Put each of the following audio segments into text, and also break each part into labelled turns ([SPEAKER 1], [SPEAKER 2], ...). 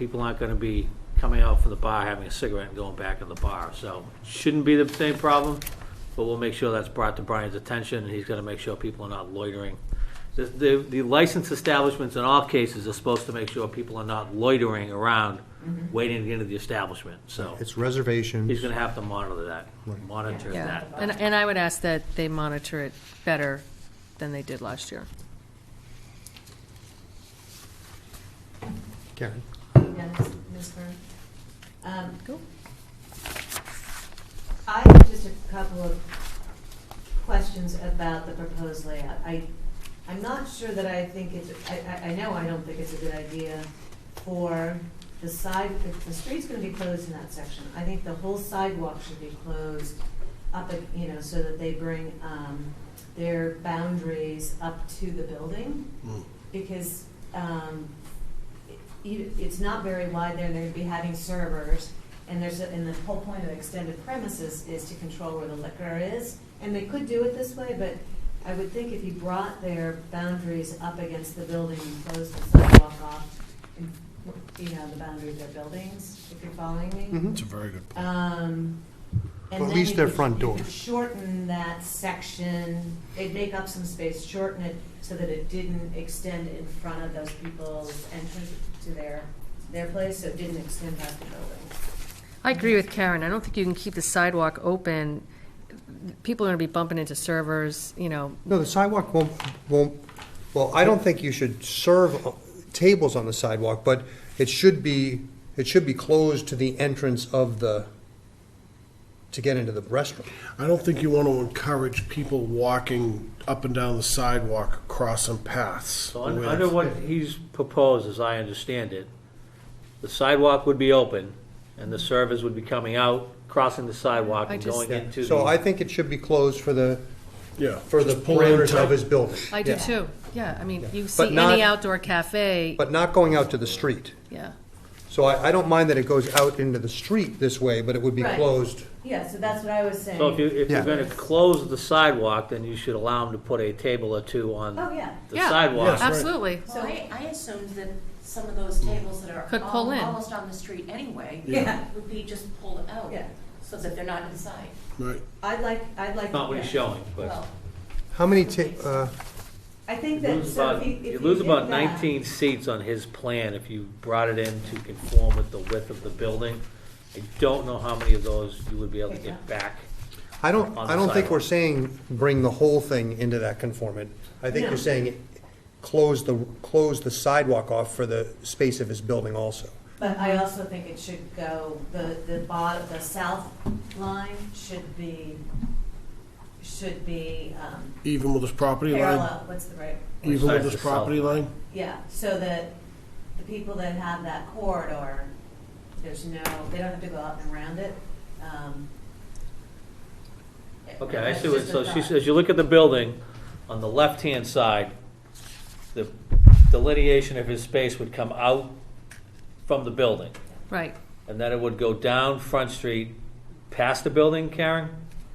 [SPEAKER 1] people aren't gonna be coming out from the bar, having a cigarette and going back in the bar, so shouldn't be the same problem, but we'll make sure that's brought to Brian's attention, and he's gonna make sure people are not loitering. The, the, the licensed establishments in all cases are supposed to make sure people are not loitering around,
[SPEAKER 2] Mm-hmm.
[SPEAKER 1] waiting to get into the establishment, so
[SPEAKER 3] It's
[SPEAKER 1] he's
[SPEAKER 3] reservations.
[SPEAKER 1] gonna have to monitor that,
[SPEAKER 3] Right.
[SPEAKER 1] monitor
[SPEAKER 2] Yeah,
[SPEAKER 1] that.
[SPEAKER 2] and, and I would ask that they monitor it better than they did last year.
[SPEAKER 3] Karen?
[SPEAKER 4] Yes, Ms. Fern. Um,
[SPEAKER 2] Go.
[SPEAKER 4] I have just a couple of questions about the proposed layout. I, I'm not sure that I think it's, I, I, I know I don't think it's a good idea for the side, if the street's gonna be closed in that section, I think the whole sidewalk should be closed up, at- you know, so that they bring, um, their boundaries up to the building because um, it- you- it's not very wide there, and they're going to be having servers, and there's, a- and the whole point of extended premises is to control where the liquor is, and they could do it this way, but I would think if you brought their boundaries up against the building and closed the sidewalk off, and, you know, the boundary of their buildings, if you're following me.
[SPEAKER 3] Mm-hmm.
[SPEAKER 5] It's a very good point.
[SPEAKER 4] Um, and
[SPEAKER 3] Or at
[SPEAKER 4] then
[SPEAKER 3] least
[SPEAKER 4] you
[SPEAKER 3] their
[SPEAKER 4] could-
[SPEAKER 3] front
[SPEAKER 4] you
[SPEAKER 3] door.
[SPEAKER 4] could Shorten that section, it'd make up some space, shorten it so that it didn't extend in front of those people's entrance to their, their place, so it didn't extend past the building.
[SPEAKER 2] I agree with Karen. I don't think you can keep the sidewalk open. People are gonna be bumping into servers, you know,
[SPEAKER 3] No, the sidewalk won't, won't, well, I don't think you should serve tables on the sidewalk, but it should be, it should be closed to the entrance of the, to get into the restaurant.
[SPEAKER 5] I don't think you want to encourage people walking up and down the sidewalk, crossing paths.
[SPEAKER 1] So un-
[SPEAKER 5] with-
[SPEAKER 1] under what he's proposed, as I understand it, the sidewalk would be open, and the servers would be coming out, crossing the sidewalk
[SPEAKER 2] I
[SPEAKER 1] and
[SPEAKER 2] just-
[SPEAKER 1] going into
[SPEAKER 3] So I
[SPEAKER 1] the,
[SPEAKER 3] think it should be closed for the,
[SPEAKER 5] Yeah.
[SPEAKER 3] for the
[SPEAKER 5] just pull in
[SPEAKER 3] parameters
[SPEAKER 5] tight.
[SPEAKER 3] of his building.
[SPEAKER 2] I do
[SPEAKER 3] Yeah.
[SPEAKER 2] too. Yeah, I mean, you
[SPEAKER 3] But
[SPEAKER 2] see
[SPEAKER 3] not-
[SPEAKER 2] any outdoor cafe,
[SPEAKER 3] But not going out to the street.
[SPEAKER 2] yeah.
[SPEAKER 3] So I, I don't mind that it goes out into the street this way, but it would be
[SPEAKER 4] Right.
[SPEAKER 3] closed.
[SPEAKER 4] Yeah, so that's what I was saying.
[SPEAKER 1] so if you, if you're
[SPEAKER 3] Yeah.
[SPEAKER 1] gonna close the sidewalk, then you should allow them to put a table or two on
[SPEAKER 4] Oh, yeah.
[SPEAKER 1] the
[SPEAKER 2] Yeah,
[SPEAKER 5] Yes,
[SPEAKER 1] sidewalk.
[SPEAKER 5] right.
[SPEAKER 2] Absolutely.
[SPEAKER 6] So I, I assumed that some of those tables that are
[SPEAKER 2] Could
[SPEAKER 6] al-
[SPEAKER 2] pull in.
[SPEAKER 6] almost on the street anyway.
[SPEAKER 4] Yeah.
[SPEAKER 6] Would be just pulled out.
[SPEAKER 4] Yeah.
[SPEAKER 6] So that they're not inside.
[SPEAKER 5] Right.
[SPEAKER 4] I'd like, I'd like.
[SPEAKER 1] Not what he's showing, but
[SPEAKER 6] Well,
[SPEAKER 3] How many ta, uh,
[SPEAKER 4] I
[SPEAKER 1] you
[SPEAKER 4] think that,
[SPEAKER 1] lose
[SPEAKER 4] so if
[SPEAKER 1] about,
[SPEAKER 4] you, if you
[SPEAKER 1] you lose
[SPEAKER 4] did
[SPEAKER 1] about
[SPEAKER 4] that-
[SPEAKER 1] nineteen seats on his plan if you brought it in to conform with the width of the building. I don't know how many of those you would be able to get back.
[SPEAKER 3] I don't,
[SPEAKER 1] On
[SPEAKER 3] I
[SPEAKER 1] the
[SPEAKER 3] don't think we're
[SPEAKER 1] sidewalk.
[SPEAKER 3] saying bring the whole thing into that conformant. I think
[SPEAKER 4] No.
[SPEAKER 3] you're saying close the, close the sidewalk off for the space of his building also.
[SPEAKER 4] But I also think it should go, the, the bottom, the south line should be, should be, um,
[SPEAKER 5] Even with this property line,
[SPEAKER 4] parallel, what's the right?
[SPEAKER 5] even
[SPEAKER 1] Besides
[SPEAKER 5] with
[SPEAKER 1] the
[SPEAKER 5] this
[SPEAKER 1] south
[SPEAKER 5] property
[SPEAKER 1] line.
[SPEAKER 5] line,
[SPEAKER 4] Yeah, so that the people that have that corridor, there's no, they don't have to go out and around it. um,
[SPEAKER 1] Okay, I
[SPEAKER 4] that's
[SPEAKER 1] see what,
[SPEAKER 4] just a
[SPEAKER 1] so she
[SPEAKER 4] thought.
[SPEAKER 1] says, you look at the building, on the left-hand side, the delineation of his space would come out from the building,
[SPEAKER 2] Right.
[SPEAKER 1] and then it would go down Front Street, past the building, Karen?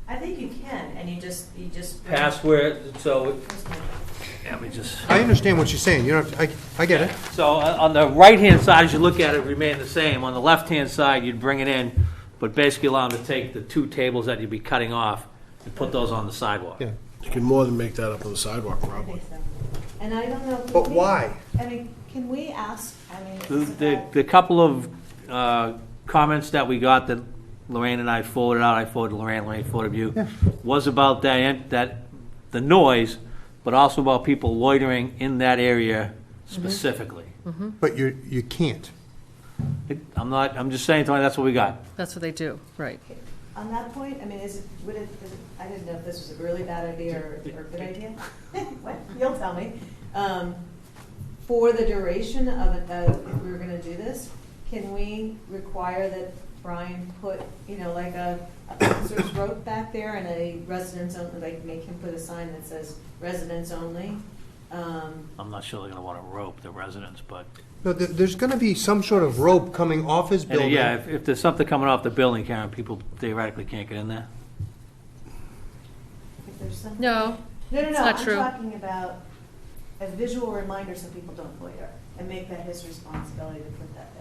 [SPEAKER 4] I think you can, and you just, you just.
[SPEAKER 1] Past where, so, let me just,
[SPEAKER 3] I understand what you're saying, you don't have, to- I, I get it.
[SPEAKER 1] so uh, on on the right-hand side, as you look at it, remain the same. On the left-hand side, you'd bring it in, but basically allow them to take the two tables that you'd be cutting off and put those on the sidewalk.
[SPEAKER 3] Yeah.
[SPEAKER 5] you can more than make that up on the sidewalk,
[SPEAKER 4] I
[SPEAKER 5] probably.
[SPEAKER 4] think so. And I don't know. if we
[SPEAKER 3] But
[SPEAKER 4] can-
[SPEAKER 3] why?
[SPEAKER 4] I mean, can we ask, I mean. it's
[SPEAKER 1] The- The,
[SPEAKER 4] about-
[SPEAKER 1] the couple of uh, comments that we got that Lorraine and I forwarded out, I forwarded Lorraine, Lorraine forwarded you, was about that, en- that, the noise, but also about people loitering in that area specifically.
[SPEAKER 3] But you, you can't.
[SPEAKER 1] It- I'm not, I'm just saying, Tony, that's what we got.
[SPEAKER 2] That's what they do, right.
[SPEAKER 4] On that point, I mean, is it, would it, is it- I didn't know if this was a really bad idea or, or a good idea. What, you'll tell me. Um, For the duration of it, though, if we were gonna do this, can we require that Brian put, you know, like a, a officer's rope back there and a residence only, like make him put a sign that says residents only? Um,
[SPEAKER 1] I'm not sure they're gonna wanna rope the residents, but,
[SPEAKER 3] No, there, there's gonna be some sort of rope coming off his
[SPEAKER 1] and uh,
[SPEAKER 3] building.
[SPEAKER 1] yeah, if, if there's something coming off the building, Karen, people theoretically can't get in there.
[SPEAKER 4] If there's some.
[SPEAKER 2] No,
[SPEAKER 4] No, no,
[SPEAKER 2] It's
[SPEAKER 4] no,
[SPEAKER 2] not
[SPEAKER 4] I'm
[SPEAKER 2] true.
[SPEAKER 4] talking about a visual reminder so people don't loiter and make that his responsibility to put that